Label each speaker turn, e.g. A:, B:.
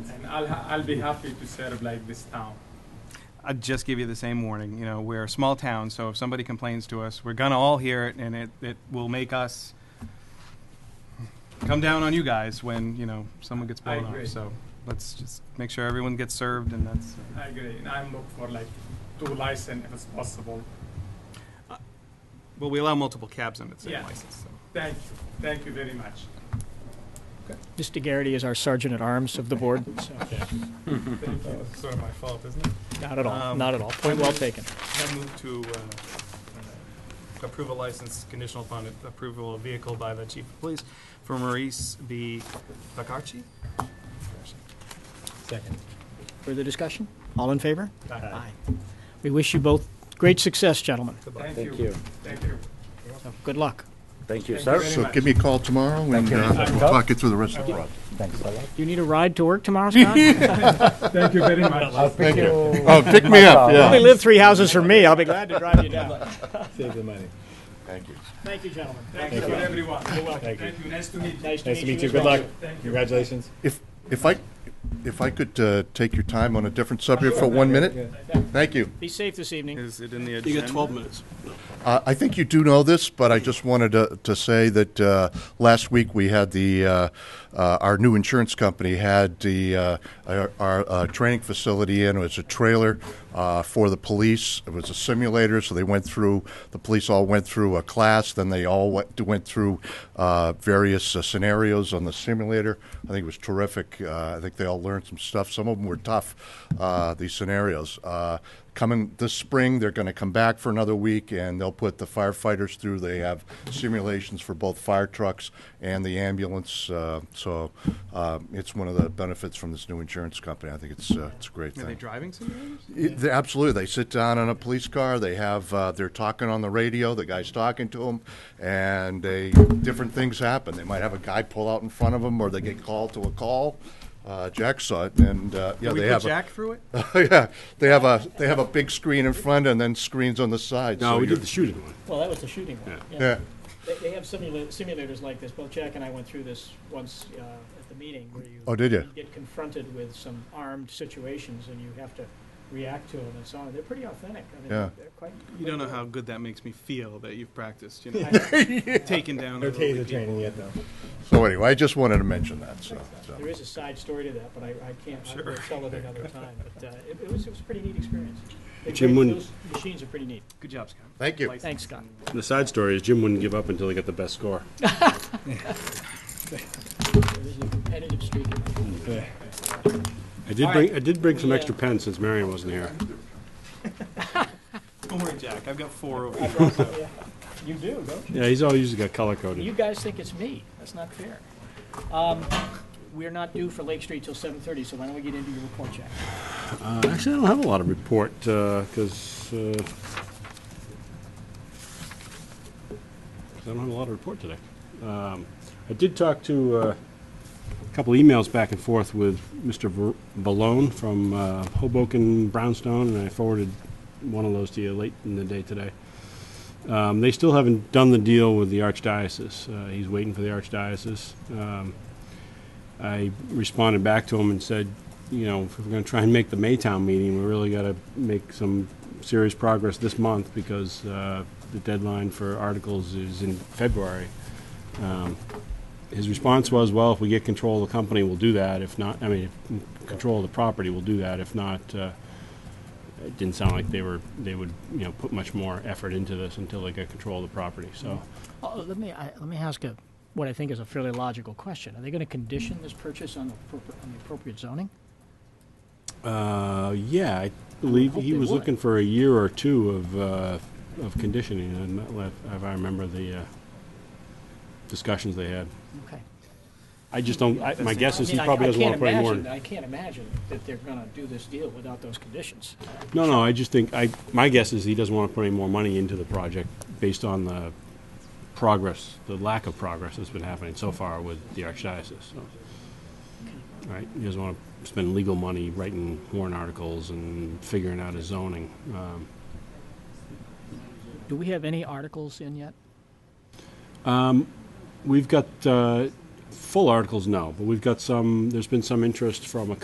A: I'll, ha- I'll be happy to serve like this town.
B: I'd just give you the same warning. You know, we're a small town, so if somebody complains to us, we're gonna all hear it, and it, it will make us come down on you guys when you know someone gets
A: I
B: blown
A: agree.
B: up. So let's just make sure everyone gets served, and that's.
A: I agree, and I'm looking for like two license if it's possible.
B: Well, we allow multiple cabs on the same
A: Yeah.
B: license. So.
A: Thank you, thank you very much.
C: Mr. Garrity is our sergeant at arms of the board, so,
A: Thank you. It's sort of my fault, isn't it?
C: not at all,
B: Um,
C: not at all. Point well taken.
B: I move to uh, uh, approve a license conditional upon approval of vehicle by the chief of police for Maurice B. Bacarchi.
D: Second.
C: Further discussion? All in favor?
D: Aye.
C: We wish you both great success, gentlemen.
B: Goodbye.
A: Thank
D: Thank
A: you,
D: you.
A: thank you.
C: So, good luck.
D: Thank you,
A: Thank
D: sir.
A: you very
E: So
A: much.
E: give me a call tomorrow and
D: you.
E: uh,
D: Thank you.
E: we'll talk it through the rest of the
A: I will.
E: project.
D: Thanks a lot.
C: Do you need a ride to work tomorrow, Scott? You
A: Thank you very much.
D: I'll pick you.
E: Oh, pick me up,
C: only
E: yeah.
C: live three houses from me, I'll be glad to drive you down.
D: Save the money.
E: Thank you.
C: Thank you, gentlemen.
A: Thank you for everyone. You're welcome.
D: Thank you.
A: Thank you, nice to meet you.
D: Nice to meet you. Good luck.
A: Thank you.
D: Congratulations.
E: If, if I, if I could uh, take your time on a different subject for one minute? Thank you.
C: Be safe this evening.
B: Is it in the agenda? You got 12 minutes.
E: Uh, I think you do know this, but I just wanted to, to say that uh, last week we had the uh, uh, our new insurance company had the uh, our, our uh, training facility in. It was a trailer uh, for the police. It was a simulator, so they went through. The police all went through a class. Then they all went, went through uh, various uh, scenarios on the simulator. I think it was terrific. Uh, I think they all learned some stuff. Some of them were tough. Uh, these scenarios. Uh, coming this spring. They're going to come back for another week, and they'll put the firefighters through. They have simulations for both fire trucks and the ambulance. Uh, so uh, it's one of the benefits from this new insurance company. I think it's uh, it's a great
B: Are they
E: thing.
B: driving simulators?
E: It- they- absolutely, they sit down in a police car. They have uh, they're talking on the radio. The guy's talking to them, and they different things happen. They might have a guy pull out in front of them, or they get called to a call. Uh, Jack saw it, and uh, yeah,
B: Can we
E: they
B: put
E: have a-
B: Jack through it?
E: yeah, they have a they have a big screen in front and then screens on the side.
F: No,
E: so
F: we
E: you're-
F: did the shooting one.
C: Well, that was the shooting one.
E: Yeah,
C: They, they have simula- simulators like this. Both Jack and I went through this once uh, at the meeting where you.
E: Oh, did ya?
C: Get confronted with some armed situations and you have to react to them and so on. They're pretty authentic. I mean,
E: Yeah.
C: They're quite.
B: You don't know how good that makes me feel that you've practiced, you know, taking down.
D: No
B: other
D: taser
B: people.
D: training yet, though.
E: So anyway, I just wanted to mention that. So, so.
C: There is a side story to that, but I, I can't, I will tell it another time. But uh, it, it was, it was a pretty neat experience. They're
F: Jim,
C: great.
F: when-
C: Those machines are pretty neat.
B: Good job, Scott.
E: Thank you.
C: Thanks, Scott.
F: The side story is Jim wouldn't give up until he got the best score.
C: There's a competitive streak. in that.
F: I did bring, I did bring some extra pens since Marion wasn't here.
B: Don't worry, Jack. I've got four over here.
C: Yeah. You do, don't
F: Yeah, he's always usually got color
C: you? You
F: coded.
C: guys think it's me. That's not fair. Um, We're not due for Lake Street till 7:30, so why don't we get into your report, Jack?
F: Uh, Actually, I don't have a lot of report, uh, because, I don't have a lot of report today. Um, I did talk to uh, a couple emails back and forth with Mr. Ver- Valone from uh, Hoboken Brownstone, and I forwarded one of those to you late in the day today. Um, they still haven't done the deal with the archdiocese. Uh, he's waiting for the archdiocese. Um, I responded back to him and said, you know, if we're going to try and make the Maytown meeting, we really got to make some serious progress this month because uh, the deadline for articles is in February. Um, his response was, well, if we get control of the company, we'll do that. If not, I mean, if control of the property, we'll do that. If not, uh, it didn't sound like they were they would you know put much more effort into this until they got control of the property. So
C: Oh, Let me, I- let me ask a, what I think is a fairly logical question. Are they going to condition this purchase on the appropri- on the appropriate zoning?
F: Uh, yeah, I believe
C: hope
F: he
C: they
F: was
C: would.
F: looking for a year or two of, uh, of conditioning, and that left, if I remember the, uh, discussions they had.
C: Okay.
F: I just don't, I, my guess
C: I
F: is he
C: mean, I-
F: probably
C: I
F: doesn't
C: can't
F: wanna put any more.
C: imagine- I can't imagine that they're going to do this deal without those conditions.
F: No, no, I just think, I, my guess is he doesn't wanna put any more money into the project based on the progress, the lack of progress that's been happening so far with the archdiocese, so. Right, he doesn't wanna spend legal money writing warrant articles and figuring out his zoning, um.
C: Do we have any articles in yet?
F: We've got uh, full articles, no, but we've got some, there's been some interest from a